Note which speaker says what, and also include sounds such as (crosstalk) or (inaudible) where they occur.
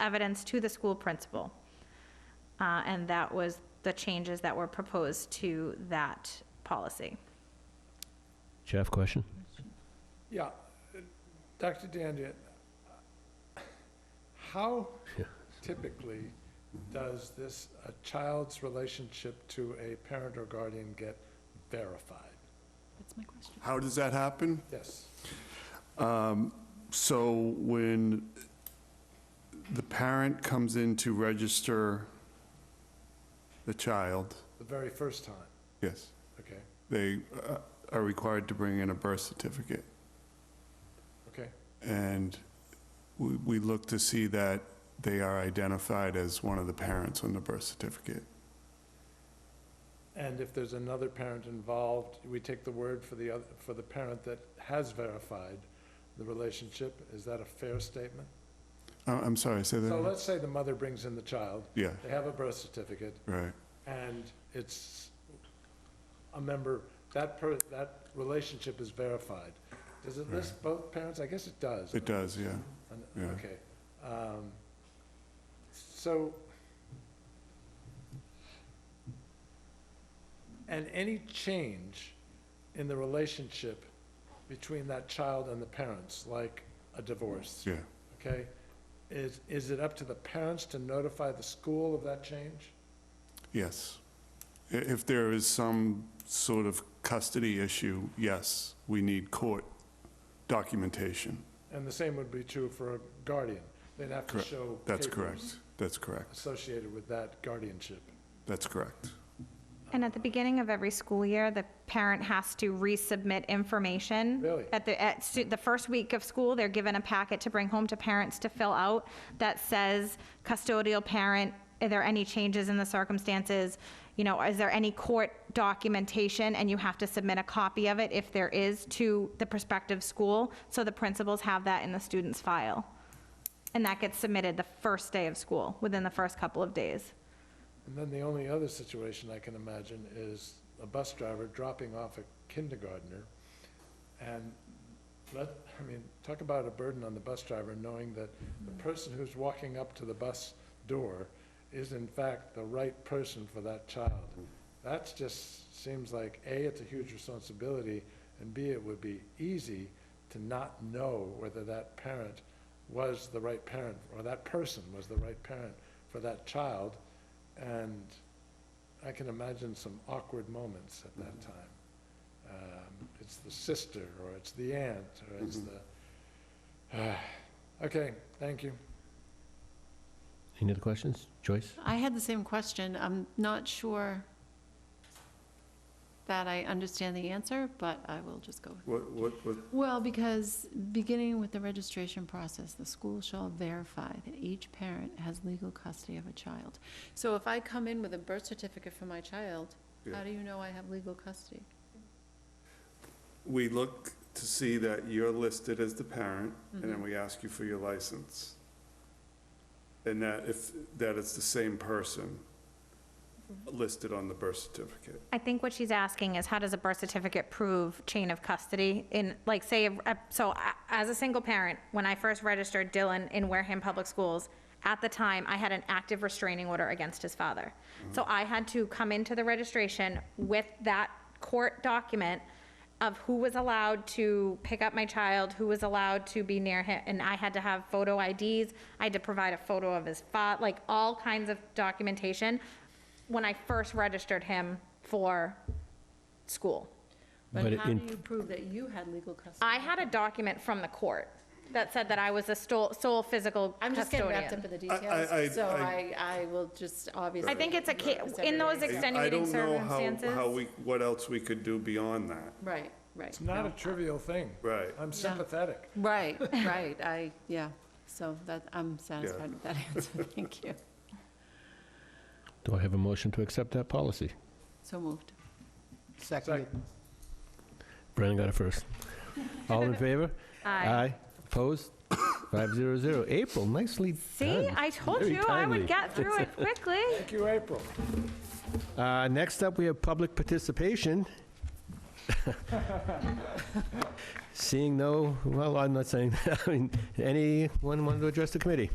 Speaker 1: evidence to the school principal. Uh, And that was the changes that were proposed to that policy.
Speaker 2: Jeff, question?
Speaker 3: Yeah, uh, Dr. Dandyan, how typically does this, a child's relationship to a parent or guardian get verified?
Speaker 4: That's my question.
Speaker 5: How does that happen?
Speaker 3: Yes,
Speaker 5: So when the parent comes in to register the child,
Speaker 3: the very first time,
Speaker 5: yes,
Speaker 3: okay,
Speaker 5: they uh, are required to bring in a birth certificate.
Speaker 3: okay,
Speaker 5: And we, we look to see that they are identified as one of the parents on the birth certificate.
Speaker 3: and if there's another parent involved, we take the word for the other, for the parent that has verified the relationship, is that a fair statement?
Speaker 5: I- Uh, I'm sorry, say
Speaker 3: So
Speaker 5: that?
Speaker 3: let's say the mother brings in the child,
Speaker 5: Yeah,
Speaker 3: they have a birth certificate,
Speaker 5: right.
Speaker 3: and it's a member, that per, that relationship is verified. Does it list both parents? I guess it does.
Speaker 5: It does, yeah.
Speaker 3: And-
Speaker 5: yeah.
Speaker 3: Okay. Um, So, and any change in the relationship between that child and the parents, like a divorce,
Speaker 5: Yeah.
Speaker 3: okay? Is, is it up to the parents to notify the school of that change?
Speaker 5: Yes. I- If there is some sort of custody issue, yes, we need court documentation.
Speaker 3: And the same would be true for a guardian. They'd have to
Speaker 5: Correct.
Speaker 3: show.
Speaker 5: That's
Speaker 3: papers
Speaker 5: correct. That's correct.
Speaker 3: Associated with that guardianship.
Speaker 5: That's correct.
Speaker 1: And at the beginning of every school year, the parent has to resubmit information.
Speaker 3: Really?
Speaker 1: At the, at stu- the first week of school, they're given a packet to bring home to parents to fill out that says custodial parent, are there any changes in the circumstances? You know, is there any court documentation? And you have to submit a copy of it if there is to the prospective school. So the principals have that in the student's file. And that gets submitted the first day of school, within the first couple of days.
Speaker 3: And then the only other situation I can imagine is a bus driver dropping off a kindergartner. And let, I mean, talk about a burden on the bus driver, knowing that the person who's walking up to the bus door is in fact the right person for that child. That's just, seems like, A, it's a huge responsibility, and B, it would be easy to not know whether that parent was the right parent, or that person was the right parent for that child. And I can imagine some awkward moments at that time. Um, It's the sister, or it's the aunt, or it's the, (sighs) okay, thank you.
Speaker 2: Any other questions? Joyce?
Speaker 4: I had the same question. I'm not sure that I understand the answer, but I will just go.
Speaker 5: What, what, what?
Speaker 4: Well, because beginning with the registration process, the school shall verify that each parent has legal custody of a child. So if I come in with a birth certificate for my child, how
Speaker 5: Yeah.
Speaker 4: do you know I have legal custody?
Speaker 5: We look to see that you're listed as the parent, and
Speaker 1: Mm-hmm.
Speaker 5: then we ask you for your license. And that if, that it's the same person
Speaker 1: Mm-hmm.
Speaker 5: listed on the birth certificate.
Speaker 1: I think what she's asking is how does a birth certificate prove chain of custody in, like, say, uh, so I- as a single parent, when I first registered Dylan in Wareham Public Schools, at the time, I had an active restraining order against his father. So I had to come into the registration with that court document of who was allowed to pick up my child, who was allowed to be near him, and I had to have photo IDs, I had to provide a photo of his fa, like, all kinds of documentation when I first registered him for school.
Speaker 2: But
Speaker 4: But how do
Speaker 2: in-
Speaker 4: you prove that you had legal custody?
Speaker 1: I had a document from the court that said that I was the sole, sole physical
Speaker 4: I'm just getting wrapped up
Speaker 1: custodian.
Speaker 4: in the
Speaker 5: I- I-
Speaker 4: details, so I,
Speaker 5: I-
Speaker 4: I will just obviously.
Speaker 1: I think it's a, ca-
Speaker 4: It's
Speaker 1: in those
Speaker 4: everybody's-
Speaker 5: I
Speaker 1: extenuating
Speaker 5: don't know how,
Speaker 1: circumstances.
Speaker 5: how we, what else we could do beyond that.
Speaker 4: Right, right.
Speaker 3: It's not a trivial thing.
Speaker 5: Right.
Speaker 3: I'm sympathetic.
Speaker 4: Right, right, I, yeah, so that, I'm satisfied with that answer, (laughs) thank you.
Speaker 2: Do I have a motion to accept that policy?
Speaker 4: So moved.
Speaker 3: Second.
Speaker 2: Brennan got
Speaker 1: (laughs)
Speaker 2: it first. All in favor? Ah,
Speaker 1: Aye.
Speaker 2: Opposed? (coughs) 500. April, nicely
Speaker 1: See,
Speaker 2: done.
Speaker 1: I told
Speaker 2: Very
Speaker 1: you I would
Speaker 2: timely.
Speaker 1: get through
Speaker 2: (laughs)
Speaker 1: it quickly.
Speaker 3: Thank you, April.
Speaker 2: Uh, Next up, we have
Speaker 1: (laughs)
Speaker 2: public participation. (laughs) Seeing no, well, I'm not saying, I mean, anyone want to address the committee?